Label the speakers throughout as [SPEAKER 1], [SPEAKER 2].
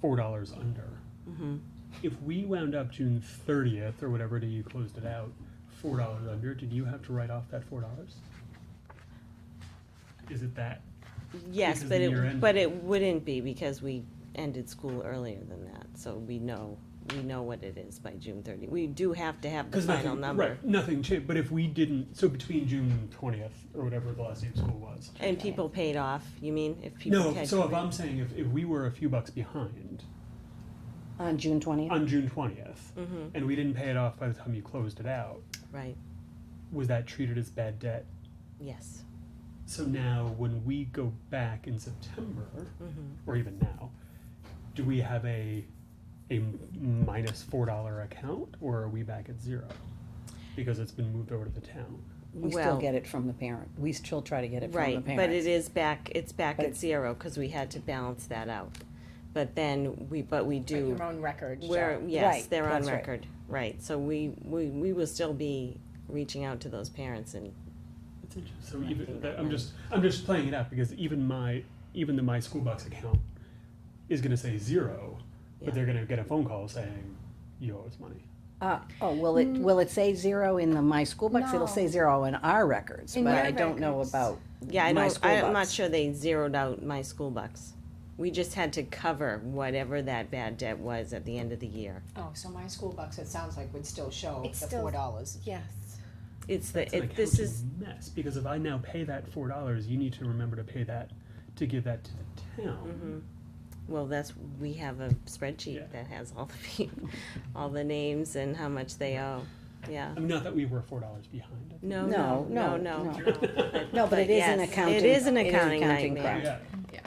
[SPEAKER 1] four dollars under.
[SPEAKER 2] Mm-hmm.
[SPEAKER 1] If we wound up June thirtieth or whatever day you closed it out, four dollars under, did you have to write off that four dollars? Is it that?
[SPEAKER 2] Yes,
[SPEAKER 1] Because
[SPEAKER 2] but
[SPEAKER 1] the year
[SPEAKER 2] it,
[SPEAKER 1] ended.
[SPEAKER 2] but it wouldn't be because we ended school earlier than that, so we know, we know what it is by June thirty. We do have to have the
[SPEAKER 1] Because
[SPEAKER 2] final
[SPEAKER 1] nothing,
[SPEAKER 2] number.
[SPEAKER 1] right, nothing changed, but if we didn't, so between June twentieth or whatever the last day of school was.
[SPEAKER 2] And people paid off, you mean, if people
[SPEAKER 1] No,
[SPEAKER 2] catch.
[SPEAKER 1] so if I'm saying if, if we were a few bucks behind
[SPEAKER 3] On June twentieth?
[SPEAKER 1] on June 20th
[SPEAKER 2] Mm-hmm.
[SPEAKER 1] and we didn't pay it off by the time you closed it out,
[SPEAKER 2] Right,
[SPEAKER 1] was that treated as bad debt?
[SPEAKER 2] yes,
[SPEAKER 1] So now, when we go back in September,
[SPEAKER 2] Mm-hmm.
[SPEAKER 1] or even now, do we have a a minus four dollar account, or are we back at zero because it's been moved over to the town?
[SPEAKER 3] We still
[SPEAKER 2] Well-
[SPEAKER 3] get it from the parent. We still try to get it from the
[SPEAKER 2] right, but it
[SPEAKER 3] parent.
[SPEAKER 2] is back, it's back
[SPEAKER 3] But
[SPEAKER 2] at
[SPEAKER 3] it-
[SPEAKER 2] zero, cause we had to balance that out. But then, we, but we do.
[SPEAKER 4] Your own record.
[SPEAKER 2] Where,
[SPEAKER 4] so-
[SPEAKER 2] yes,
[SPEAKER 3] Right,
[SPEAKER 2] they're on
[SPEAKER 3] that's right.
[SPEAKER 2] record, right, so we, we, we will still be reaching out to those parents and,
[SPEAKER 1] It's interesting. So even that, I'm just I'm just playing it out because even my even the my school bucks account is going to say zero,
[SPEAKER 2] Yeah.
[SPEAKER 1] but they're going to get a phone call saying you owe us money.
[SPEAKER 3] Uh, oh, will it, will it say zero in the My School Bucks? It'll say
[SPEAKER 4] No.
[SPEAKER 3] zero in our records,
[SPEAKER 4] In
[SPEAKER 3] but
[SPEAKER 4] your
[SPEAKER 3] I don't know
[SPEAKER 4] records.
[SPEAKER 3] about
[SPEAKER 2] yeah, I
[SPEAKER 3] My
[SPEAKER 2] don't,
[SPEAKER 3] School
[SPEAKER 2] I'm not
[SPEAKER 3] Bucks.
[SPEAKER 2] sure they zeroed out my school bucks. We just had to cover whatever that bad debt was at the end of the year.
[SPEAKER 5] Oh, so my school bucks, it sounds like would still show
[SPEAKER 4] It's
[SPEAKER 5] the
[SPEAKER 4] still-
[SPEAKER 5] four dollars.
[SPEAKER 4] Yes.
[SPEAKER 2] It's the,
[SPEAKER 1] It's an
[SPEAKER 2] it, this
[SPEAKER 1] accounting
[SPEAKER 2] is,
[SPEAKER 1] mess because if I now pay that four dollars, you need to remember to pay that to give that to the town.
[SPEAKER 2] Mm-hmm. well, that's, we have a
[SPEAKER 1] Yeah.
[SPEAKER 2] spreadsheet that has all the people, all the names and how much they owe, yeah.
[SPEAKER 1] I mean, not that we were four dollars behind.
[SPEAKER 2] No,
[SPEAKER 3] No,
[SPEAKER 2] no, no,
[SPEAKER 3] no,
[SPEAKER 2] no.
[SPEAKER 3] no. No, but it is an
[SPEAKER 2] yes,
[SPEAKER 3] accounting.
[SPEAKER 2] It is an
[SPEAKER 3] it
[SPEAKER 2] accounting
[SPEAKER 3] accounting
[SPEAKER 2] nightmare.
[SPEAKER 3] problem.
[SPEAKER 1] Yeah,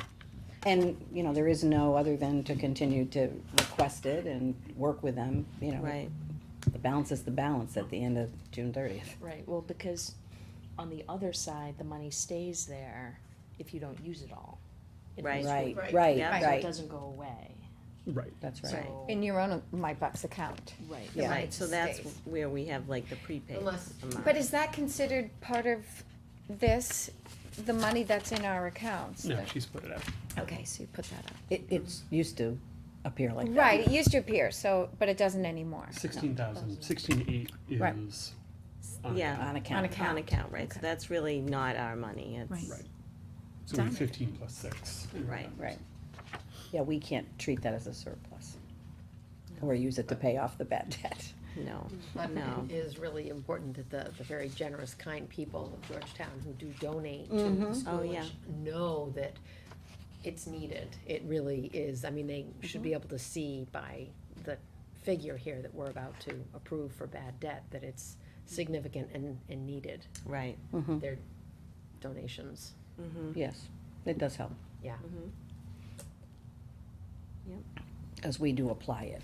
[SPEAKER 3] And, you know, there is no other than to continue to request it and work with them, you know.
[SPEAKER 2] right,
[SPEAKER 3] The balance is the balance at the end of June thirtieth.
[SPEAKER 4] Right, well, because on the other side, the money stays there if you don't use it all. It
[SPEAKER 2] Right.
[SPEAKER 4] goes-
[SPEAKER 3] Right,
[SPEAKER 6] Right.
[SPEAKER 3] right,
[SPEAKER 2] Yeah.
[SPEAKER 4] So it
[SPEAKER 3] right.
[SPEAKER 4] doesn't go away.
[SPEAKER 1] right.
[SPEAKER 3] That's right.
[SPEAKER 4] So,
[SPEAKER 7] In your own My Bucks account.
[SPEAKER 4] right.
[SPEAKER 3] Yeah.
[SPEAKER 2] right, so that's
[SPEAKER 7] Stays.
[SPEAKER 2] where we have like the prepaid
[SPEAKER 6] Unless-
[SPEAKER 2] amount.
[SPEAKER 7] But is that considered part of this, the money that's in our accounts?
[SPEAKER 1] No, she split it up.
[SPEAKER 7] Okay, so you put that up.
[SPEAKER 3] It, it's used to appear like that.
[SPEAKER 7] Right, it used to appear, so, but it doesn't anymore.
[SPEAKER 1] Sixteen thousand, sixteen eight
[SPEAKER 3] Right.
[SPEAKER 1] is. on
[SPEAKER 2] Yeah.
[SPEAKER 1] account.
[SPEAKER 3] On
[SPEAKER 7] On
[SPEAKER 3] account.
[SPEAKER 7] account.
[SPEAKER 2] on account, right, so
[SPEAKER 7] Okay.
[SPEAKER 2] that's really not our money, it's,
[SPEAKER 1] Right. So we have fifteen plus six.
[SPEAKER 2] right,
[SPEAKER 3] Right. Yeah, we can't treat that as a surplus. Or use it to pay off the bad debt.
[SPEAKER 2] no,
[SPEAKER 6] But
[SPEAKER 2] No.
[SPEAKER 6] it is really important that the, the very generous, kind people of Georgetown who do donate to the
[SPEAKER 2] Oh,
[SPEAKER 6] school
[SPEAKER 2] yeah.
[SPEAKER 6] know that it's needed. It really is. I mean, they should
[SPEAKER 2] Mm-hmm.
[SPEAKER 6] be able to see by the figure here that we're about to approve for bad debt, that it's significant and, and needed,
[SPEAKER 2] right.
[SPEAKER 6] their donations.
[SPEAKER 3] Yes, it does help.
[SPEAKER 6] Yeah.
[SPEAKER 2] Yep.
[SPEAKER 3] Because we do apply it.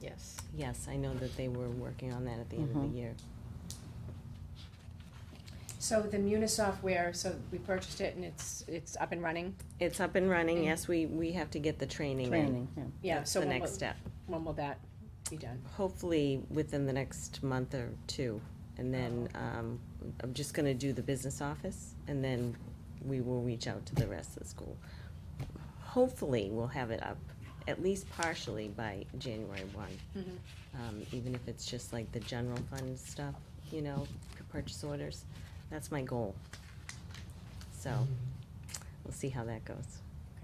[SPEAKER 6] Yes.
[SPEAKER 2] Yes, I know that they were working on that at the end of the year.
[SPEAKER 4] So the Muni software, so we purchased it and it's, it's up and running?
[SPEAKER 2] It's up and running, yes, we, we have to get the training in.
[SPEAKER 3] Training, yeah.
[SPEAKER 4] Yeah,
[SPEAKER 2] That's
[SPEAKER 4] so
[SPEAKER 2] the
[SPEAKER 4] when
[SPEAKER 2] next
[SPEAKER 4] will,
[SPEAKER 2] step.
[SPEAKER 4] when will that be done?
[SPEAKER 2] Hopefully within the next month or two. And then,
[SPEAKER 3] Oh.
[SPEAKER 2] um, I'm just gonna do the business office and then we will reach out to the rest of the school. Hopefully, we'll have it up at least partially by January one.
[SPEAKER 3] Mm-hmm.
[SPEAKER 2] Um, even if it's just like the general fund stuff, you know, purchase orders, that's my goal. So,
[SPEAKER 3] Mm-hmm.
[SPEAKER 2] we'll see how that goes.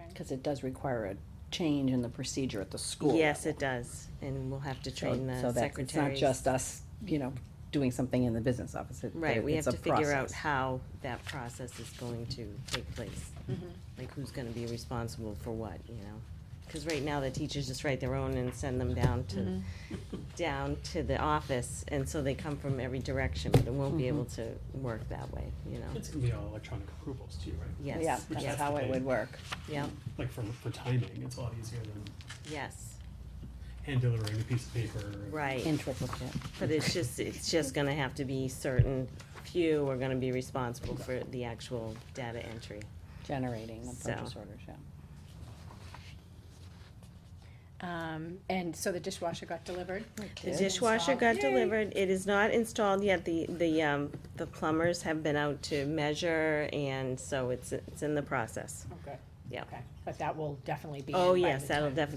[SPEAKER 3] Because it does require a change in the procedure at the school.
[SPEAKER 2] Yes, it does, and we'll have to
[SPEAKER 3] So-
[SPEAKER 2] train the
[SPEAKER 3] so that's- It's not
[SPEAKER 2] secretaries.
[SPEAKER 3] just us, you know, doing something in the business office. It-
[SPEAKER 2] Right, we have
[SPEAKER 3] it's a
[SPEAKER 2] to figure out
[SPEAKER 3] process.
[SPEAKER 2] how that process is going to take place.
[SPEAKER 4] Mm-hmm.
[SPEAKER 2] Like who's gonna be responsible for what, you know? Cause right now the teachers just write their own and send them down
[SPEAKER 3] Mm-hmm.
[SPEAKER 4] Mm-hmm.
[SPEAKER 2] to, down to the office, and so they come from every direction, but it won't
[SPEAKER 3] Mm-hmm.
[SPEAKER 2] be able to work that way, you know?
[SPEAKER 1] It's gonna be all electronic approvals too, right?
[SPEAKER 3] Yeah,
[SPEAKER 2] Yes,
[SPEAKER 1] Which
[SPEAKER 3] that's
[SPEAKER 1] has
[SPEAKER 2] yes,
[SPEAKER 3] how
[SPEAKER 1] to
[SPEAKER 3] it
[SPEAKER 1] be-
[SPEAKER 3] would work.
[SPEAKER 2] yeah,
[SPEAKER 1] Like for, for timing, it's a lot easier than
[SPEAKER 2] yes,
[SPEAKER 1] hand delivering a piece of paper.
[SPEAKER 2] right.
[SPEAKER 3] In triplicate.
[SPEAKER 2] But it's just, it's just gonna have to be certain few are gonna be responsible for the actual data entry.
[SPEAKER 3] generating the
[SPEAKER 2] So.
[SPEAKER 3] purchase orders, yeah.
[SPEAKER 4] Um, and so the dishwasher got delivered?
[SPEAKER 2] The dishwasher got delivered, it is not installed yet, the, the, um, the plumbers have been out to measure, and so it's, it's in the process.
[SPEAKER 4] Okay.
[SPEAKER 2] Yeah.
[SPEAKER 4] Okay, but that will definitely be.
[SPEAKER 2] Oh,
[SPEAKER 4] in by
[SPEAKER 2] yes,
[SPEAKER 4] the
[SPEAKER 2] that'll
[SPEAKER 4] time.
[SPEAKER 2] definitely